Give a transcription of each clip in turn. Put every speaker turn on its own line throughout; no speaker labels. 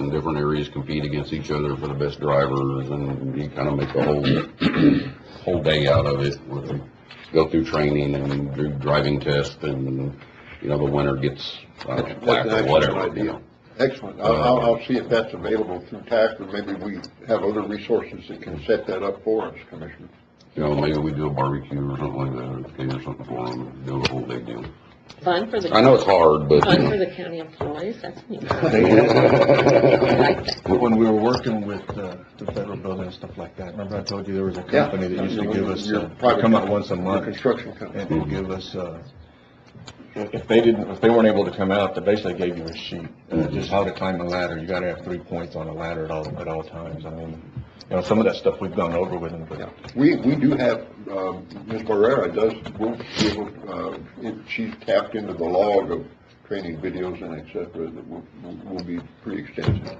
and different areas compete against each other for the best drivers, and you kind of make a whole, whole day out of it. with them. Go through training and do driving tests, and, you know, the winner gets, I don't know, plaque
That's an
or whatever,
excellent
you know.
idea. Excellent. I'll, I'll, I'll see if that's available through TAC, or maybe we have other resources that can set that up for us, Commissioner.
You know, maybe we do a barbecue or something like that, or or something for them, do a whole big deal.
Fun for the,
I know it's hard, but.
fun for the county employees, that's neat.
When we were working with uh, the federal building and stuff like that, remember I told you there was a
Yeah.
company that used to
Your-
give us,
your
uh,
private
come out once a
Your
month
Construction company.
and they'd give us, uh, if if they didn't, if they weren't able to come out, they basically gave you a sheet, uh, just how to climb a ladder. You gotta have three points on a ladder at all, at all times. I mean, you know, some of that stuff we've gone over with them,
Yeah,
but
we, we do have, um, Ms. Barrera does, will be able, uh, if she's tapped into the log of training videos and et cetera, that will, will- will be pretty extensive.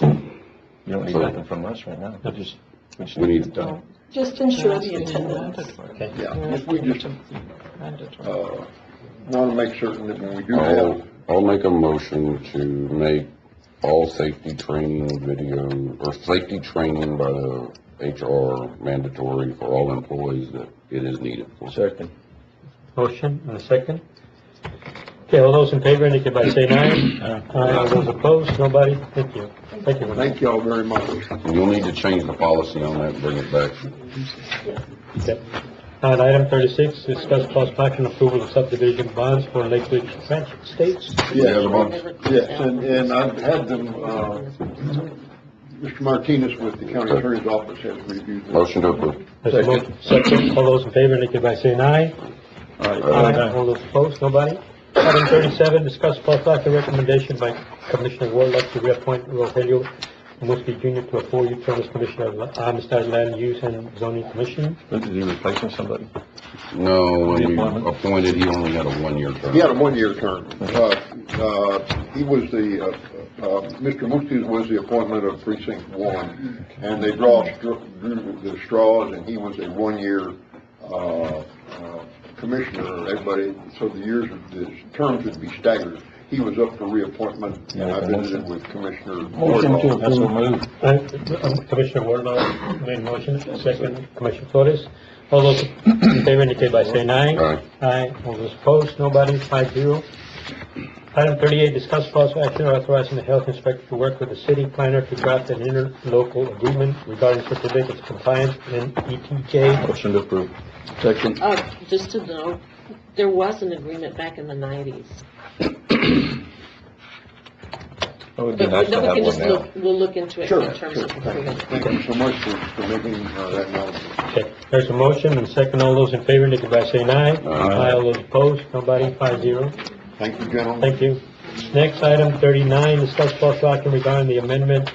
you don't need nothing from us right now. We just, we just
We
need
need-
it done.
Just ensure the attendance.
Yeah, if we just, uh, want to make certain that when we do
I'll,
have,
I'll make a motion to make all safety training video, or safety training by the HR mandatory for all employees that it is needed for.
Second.
Motion and a second. Okay, all those in favor indicate by saying aye. Aye, all those opposed, nobody? Thank you. Thank you. Renee.
thank y'all very much.
You'll need to change the policy on that, bring it back.
Okay. Now, at Uh, item thirty-six, discuss possible action approval of subdivision bonds for Lakewood Transit States.
Yes, yes, and, and I've had them, uh, Mr. Martinez with the county attorney's office has reviewed them.
Motion to approve.
There's a mo- Second, all those in favor indicate by saying aye. Aye. All those opposed, nobody? Item thirty-seven, discuss possible action recommendation by Commissioner Warlock to reappoint Rogelio Muski Jr. to a four-year term as Commissioner of La- Amistad Land Use and Zoning Commission.
Is he replacing somebody?
No, when we
Reappointment.
appointed, he only had a one-year term.
He had a one-year term. Uh, uh, He was the, uh, uh, Mr. Mutis was the appointment of precinct one, and they draw, str- drew the straws, and he was a one-year uh, uh, commissioner, everybody, so the years, the terms would be staggered. He was up for reappointment, and I visited with Commissioner Wardlaw.
That's a move.
Uh, Commissioner Warnow made motion, second, Commissioner Flores. All those in favor indicate by saying aye.
Aye.
all those opposed, nobody, five zero. Item thirty-eight, discuss possible action authorizing the health inspector to work with the city planner to draft an interlocal agreement regarding certificates of compliance and E ETJ.
Motion to approve.
Oh, just to know, there was an agreement back in the nineties.
That would be
But
nice
we no,
to
we
have
can
one
just
now.
look, we'll look into it
Sure,
in
sure.
terms of improving. it.
Thank you so much for for making uh, that known.
Okay, there's a motion and second, all those in favor indicate by saying aye. Aye, all those opposed, nobody, five zero.
Thank you, gentlemen.
Thank you. Next, item thirty-nine, discuss possible action regarding the amendment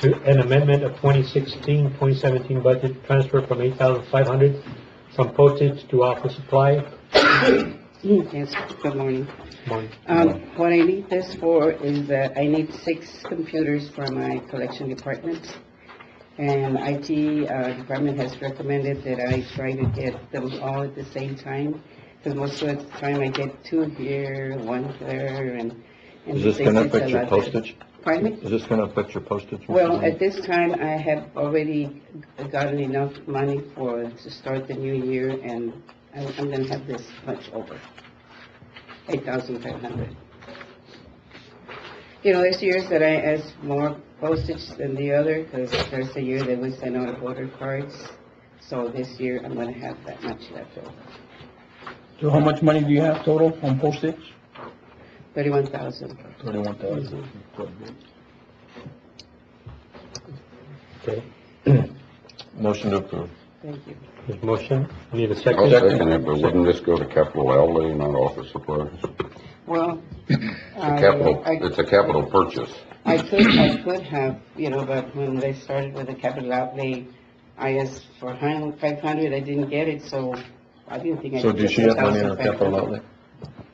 to, an amendment of 2016-2017 budget transfer from eight thousand five hundred from postage to office supply.
Mm, Yes, good morning.
Morning.
Um, what I need this for is that I need six computers for my collection department. And IT, uh, department has recommended that I try to get them all at the same time. Cause most of the time I get two here, one there, and. and
Is this gonna
it's a
affect your
lot there.
postage?
Pardon me?
Is this gonna affect your postage?
Well, at this time, I have already gotten enough money for, to start the new year, and I'm, I'm gonna have this much over, eight thousand five hundred. You know, there's years that I ask more postage than the other, because there's a year that we sent out voter cards, so this year, I'm gonna have that much left over,
So how much money do you have total on postage?
thirty-one thousand.
Thirty-one thousand.
Okay,
Motion to approve.
Thank you.
there's a motion, need a
I'll
second.
second it, but wouldn't this go to capital outlay, not office supplies?
Well. Uh, um,
It's a capital, it's a capital purchase.
I could, I could have, you know, but when they started with the capital outlay, I asked for hun- 500, I didn't get it, so I didn't think I
So
could
does
get
she have money in her
1,500.
capital outlay?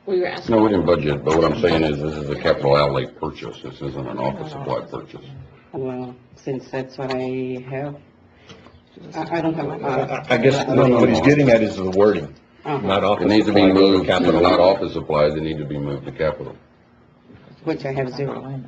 We were asking.
No, we didn't budget, but what I'm saying is this is a capital outlay purchase. This isn't an office supply purchase.
Well, since that's what I have, I, I don't have. uh,
I, I guess what what he's getting at is the wording, not office.
It needs to be
supplies,
moved,
capital
not
outlay.
office supplies, it needs to be moved to capital.
Which I have zero.